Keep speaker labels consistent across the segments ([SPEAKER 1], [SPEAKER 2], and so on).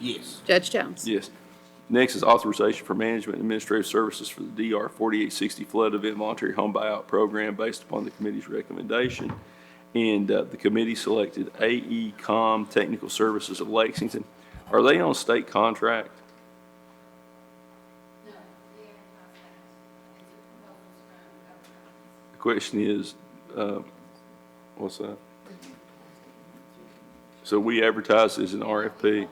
[SPEAKER 1] Yes.
[SPEAKER 2] Judge Jones?
[SPEAKER 3] Yes. Next is authorization for management and administrative services for the DR 4860 flood event voluntary home buyout program based upon the committee's recommendation. And uh, the committee selected AECom Technical Services of Lexington. Are they on state contract? The question is, uh, what's that? So we advertise as an RFP?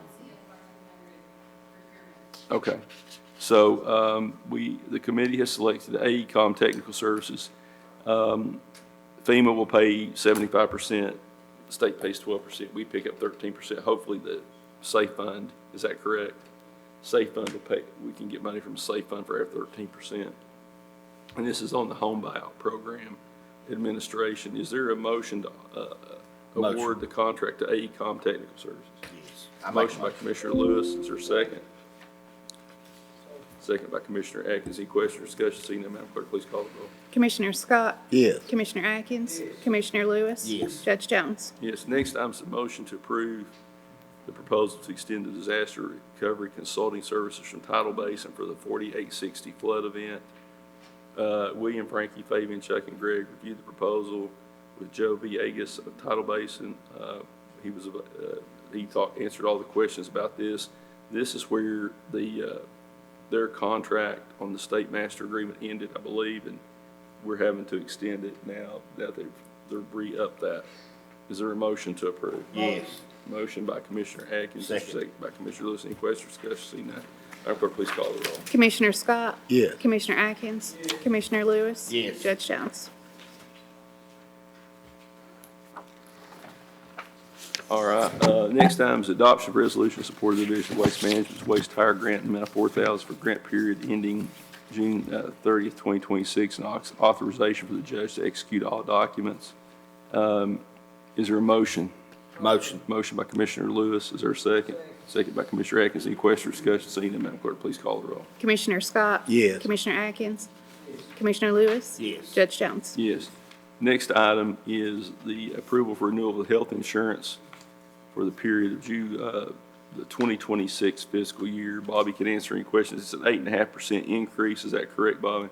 [SPEAKER 3] Okay. So um, we, the committee has selected AECom Technical Services. Um, FEMA will pay 75%, the state pays 12%, we pick up 13%. Hopefully the safe fund, is that correct? Safe fund will pay, we can get money from the safe fund for our 13%. And this is on the home buyout program administration. Is there a motion to uh,
[SPEAKER 1] Motion.
[SPEAKER 3] award the contract to AECom Technical Services?
[SPEAKER 1] Yes. I make a
[SPEAKER 3] Motion by Commissioner Lewis, is there a second? Second by Commissioner Atkins, any question or discussion, seeing none, Madam Clerk, please call the roll.
[SPEAKER 2] Commissioner Scott?
[SPEAKER 1] Yes.
[SPEAKER 2] Commissioner Atkins? Commissioner Lewis?
[SPEAKER 1] Yes.
[SPEAKER 2] Judge Jones?
[SPEAKER 3] Yes, next item's a motion to approve the proposal to extend the disaster recovery consulting services from Tidal Basin for the forty-eight sixty flood event. Uh, William, Frankie, Fabian, Chuck, and Greg reviewed the proposal with Joe V. Agus of Tidal Basin. Uh, he was, uh, he talked, answered all the questions about this. This is where the, uh, their contract on the state master agreement ended, I believe, and we're having to extend it now that they've, they're re-up that. Is there a motion to approve?
[SPEAKER 1] Yes.
[SPEAKER 3] Motion by Commissioner Atkins,
[SPEAKER 1] Second.
[SPEAKER 3] second by Commissioner Lewis. Any questions, discussion, seeing none? Madam Clerk, please call the roll.
[SPEAKER 2] Commissioner Scott?
[SPEAKER 1] Yes.
[SPEAKER 2] Commissioner Atkins? Commissioner Lewis?
[SPEAKER 1] Yes.
[SPEAKER 2] Judge Jones?
[SPEAKER 3] All right, uh, next item is adoption of resolution supporting the Division of Waste Management's waste tire grant in the amount of four thousand for grant period ending June uh, thirtieth, twenty twenty-six, and aux- authorization for the judge to execute all documents. Um, Is there a motion?
[SPEAKER 1] Motion.
[SPEAKER 3] Motion by Commissioner Lewis, is there a second? Second by Commissioner Atkins, any question or discussion, seeing none, Madam Clerk, please call the roll.
[SPEAKER 2] Commissioner Scott?
[SPEAKER 1] Yes.
[SPEAKER 2] Commissioner Atkins? Commissioner Lewis?
[SPEAKER 1] Yes.
[SPEAKER 2] Judge Jones?
[SPEAKER 3] Yes. Next item is the approval for renewal of health insurance for the period of June, uh, the 2026 fiscal year. Bobby can answer any questions. It's an 8.5% increase, is that correct, Bobby?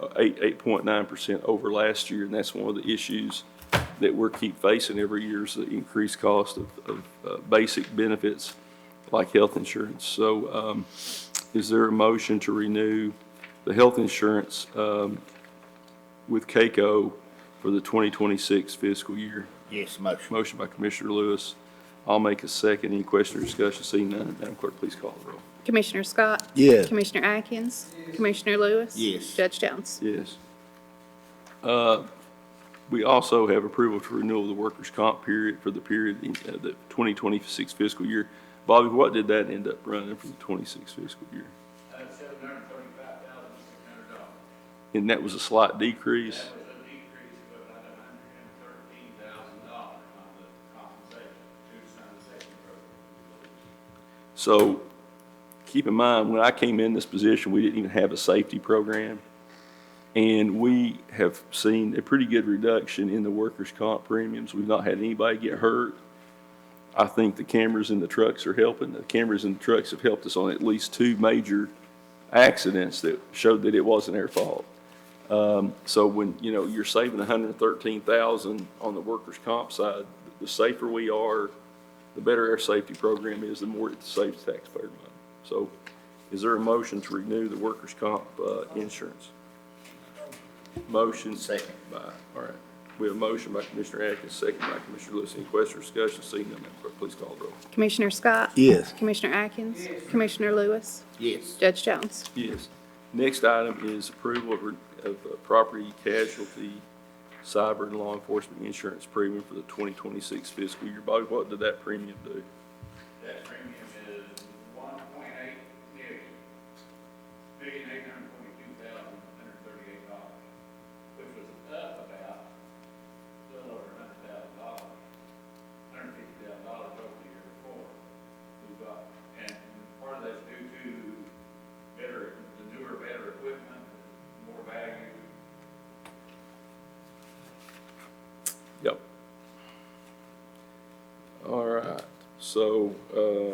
[SPEAKER 3] Uh, Eight, 8.9% over last year, and that's one of the issues that we're keep facing every year is the increased cost of, of uh, basic benefits like health insurance. So um, is there a motion to renew the health insurance um, with CAECO for the 2026 fiscal year.
[SPEAKER 1] Yes, motion.
[SPEAKER 3] Motion by Commissioner Lewis. I'll make a second. Any question or discussion? Seeing none, Madam Clerk, please call the roll.
[SPEAKER 2] Commissioner Scott?
[SPEAKER 1] Yes.
[SPEAKER 2] Commissioner Atkins? Commissioner Lewis?
[SPEAKER 1] Yes.
[SPEAKER 2] Judge Jones?
[SPEAKER 3] Yes. Uh, We also have approval to renew the workers' comp period for the period, in, uh, the 2026 fiscal year. Bobby, what did that end up running for the 26 fiscal year?
[SPEAKER 4] That's seven hundred thirty-five thousand, six hundred dollars.
[SPEAKER 3] And that was a slight decrease.
[SPEAKER 4] That was a decrease of about a hundred and thirteen thousand dollars on the compensation to the sanitation program.
[SPEAKER 3] So keep in mind, when I came in this position, we didn't even have a safety program. And we have seen a pretty good reduction in the workers' comp premiums. We've not had anybody get hurt. I think the cameras in the trucks are helping. The cameras in the trucks have helped us on at least two major accidents that showed that it wasn't their fault. Um, so when, you know, you're saving hundred and thirteen thousand on the workers' comp side, the safer we are, the better our safety program is, the more it saves taxpayer money. So is there a motion to renew the workers' comp, uh, insurance? Motion.
[SPEAKER 1] Second.
[SPEAKER 3] By, all right. We have a motion by Commissioner Atkins, second by Commissioner Lewis. Any question or discussion? Seeing none, Madam Clerk, please call the roll.
[SPEAKER 2] Commissioner Scott?
[SPEAKER 1] Yes.
[SPEAKER 2] Commissioner Atkins? Commissioner Lewis?
[SPEAKER 1] Yes.
[SPEAKER 2] Judge Jones?
[SPEAKER 3] Yes. Next item is approval of, of uh, property casualty, cyber and law enforcement insurance premium for the 2026 fiscal year. Bobby, what did that premium do?
[SPEAKER 4] That premium is one point eight million, million eight hundred twenty-two thousand, one hundred thirty-eight dollars, which was up about a little over a hundred thousand dollars, hundred fifty thousand dollars over the year before. We got, and part of that's due to better, the newer, better equipment, more value,
[SPEAKER 3] Yep. All right, So, uh,